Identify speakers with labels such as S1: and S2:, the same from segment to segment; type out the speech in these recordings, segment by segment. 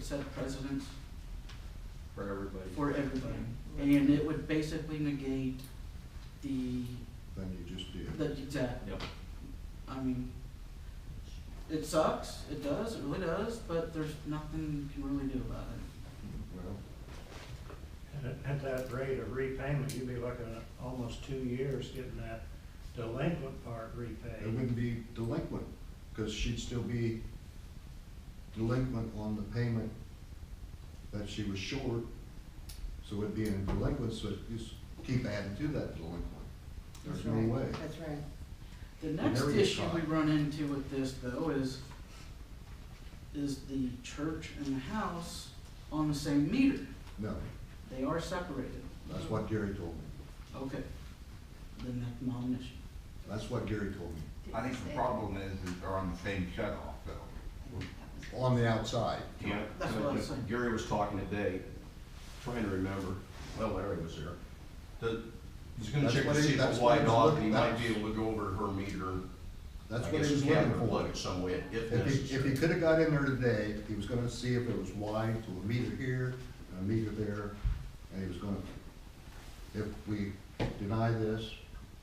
S1: set precedence
S2: for everybody.
S1: for everybody. And it would basically negate the,
S3: than you just did.
S1: the, exact,
S2: Yep.
S1: I mean, it sucks, it does, it really does, but there's nothing you can really do about it.
S3: Well,
S4: At- At that rate of repayment, you'd be looking at almost two years getting that delinquent part
S3: it
S4: repaid.
S3: wouldn't be delinquent, because she'd still be delinquent on the payment that she was short. So it'd be in delinquent, so it'd just keep adding to that delinquent. There's
S5: That's
S3: no
S5: right.
S3: way.
S5: That's right.
S1: The next
S3: Whenever you
S1: issue
S3: try.
S1: we run into with this though is, is the church and the house on the same meter.
S3: No,
S1: They are separated.
S3: that's what Gary told me.
S1: Okay, then that's not an issue.
S3: That's what Gary told me,
S6: I think the problem is that they're on the same shut-off though.
S3: on the outside.
S2: Yeah,
S1: That's what I was saying.
S2: Gary was talking today, trying to remember, well, Larry was there. The, he's gonna
S3: That's
S2: check
S3: what
S2: to
S3: he-
S2: see if
S3: that's
S2: it's
S3: what he
S2: wide
S3: was
S2: off,
S3: looking-
S2: he might
S3: that's-
S2: be able to go over her meter. and
S3: That's
S2: I
S3: what
S2: guess
S3: he was
S2: have
S3: looking
S2: her
S3: for.
S2: Plug it some way
S3: If he,
S2: if
S3: if he
S2: necessary.
S3: could have got in there today, he was gonna see if it was wide to a meter here, and a meter there, and he was gonna, if we deny this,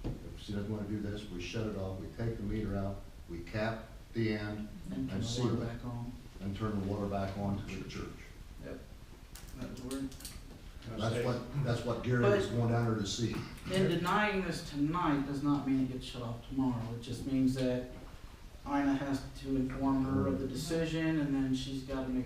S3: if she doesn't wanna do this, we shut it off, we take the meter out, we cap the end
S1: And turn
S3: I see
S1: the water
S3: that.
S1: back on.
S3: and turn the water back on to the church.
S1: That would work.
S3: That's what, that's what Gary was going down there to see.
S1: And denying this tonight does not mean it gets shut off tomorrow, it just means that Ina has to inform her of the decision, and then she's gotta make,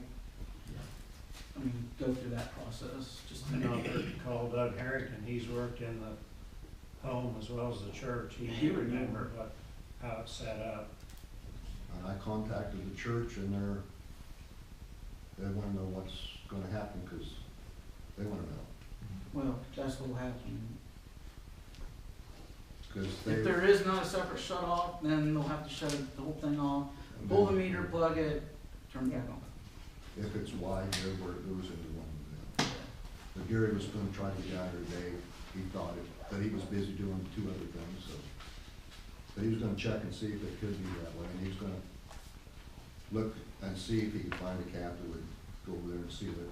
S1: I mean, go through that process, just to
S4: I know
S1: make
S4: a
S1: it.
S4: person called Doug Harrington, he's worked in the home as well as the church,
S1: He
S4: he
S1: would know.
S4: remembered what, how it's set up.
S3: And I contacted the church and they're, they wanna know what's gonna happen, cause they wanna know,
S1: Well, that's what'll happen.
S3: cause they.
S1: If there is not a separate shut off, then they'll have to shut the whole thing off, pull the meter, plug it, turn it back on.
S3: if it's wide there where it goes into one of them. But Gary was gonna try to get out there today, he thought it, but he was busy doing two other things, so. But he was gonna check and see if it could be that way, and he was gonna look and see if he could find a cap that would go over there and seal it.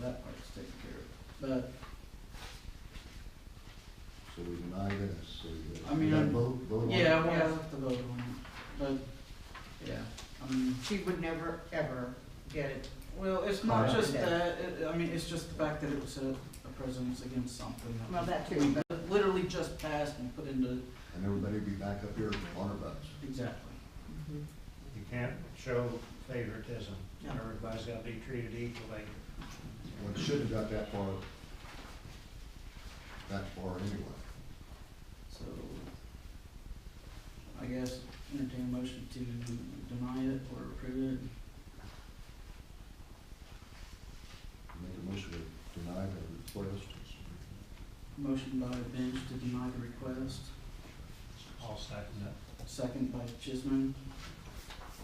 S1: Well, that part's taken care of,
S3: So we deny this, so you.
S1: I mean,
S3: you gotta
S1: I'm-
S3: Vote, vote
S1: but,
S3: on it.
S1: yeah, we'll have to vote on it, but, yeah, I mean.
S5: She would never, ever get it.
S1: Well, it's not
S3: Right.
S1: just that, it, I mean, it's just the fact that it was a, a precedence against something that.
S5: Well, that too, but-
S1: that Literally just passed and put into,
S3: And everybody be back up here on our butts.
S1: exactly.
S4: You can't show favoritism,
S1: No.
S4: everybody's gotta be treated equally.
S3: Well, it shouldn't have got that far, that far anyway.
S1: So, I guess entertain a motion to deny it or approve it.
S3: Make a motion to deny the request.
S1: Motion by Bench to deny the request,
S4: I'll second it.
S1: second by Chisholm.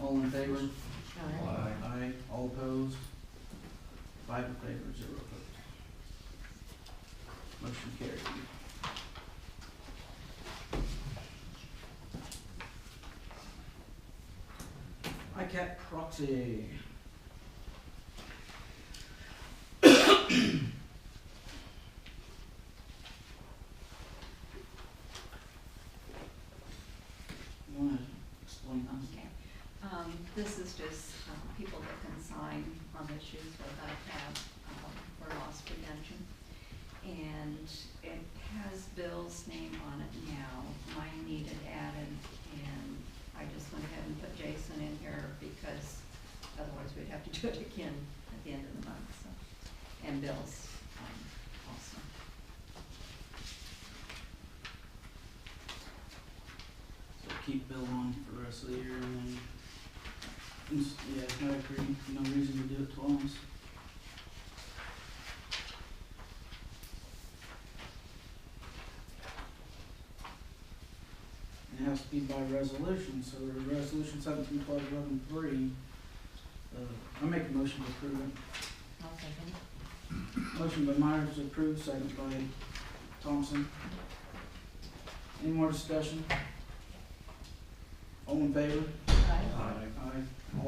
S1: All in favor?
S5: Alright.
S1: Aye. All opposed? Five in favor, zero opposed. Motion carried. ICAP proxy. You wanna explain that?
S7: Okay, um, this is just, um, people that can sign on issues with ICAP, um, for loss prevention. And it has Bill's name on it now, mine needed added, and I just went ahead and put Jason in here because otherwise we'd have to do it again at the end of the month, so. And Bill's, um, also.
S1: So keep Bill on for the rest of the year and then, and s- yeah, I agree, no reason to do it twice. And It has to be by resolution, so we're resolution seventeen twelve eleven three, uh, I make a motion to approve it.
S5: I'll second it.
S1: Motion by Myers to approve, second by Thompson. Any more discussion? All in favor?
S5: Aye.
S1: Aye.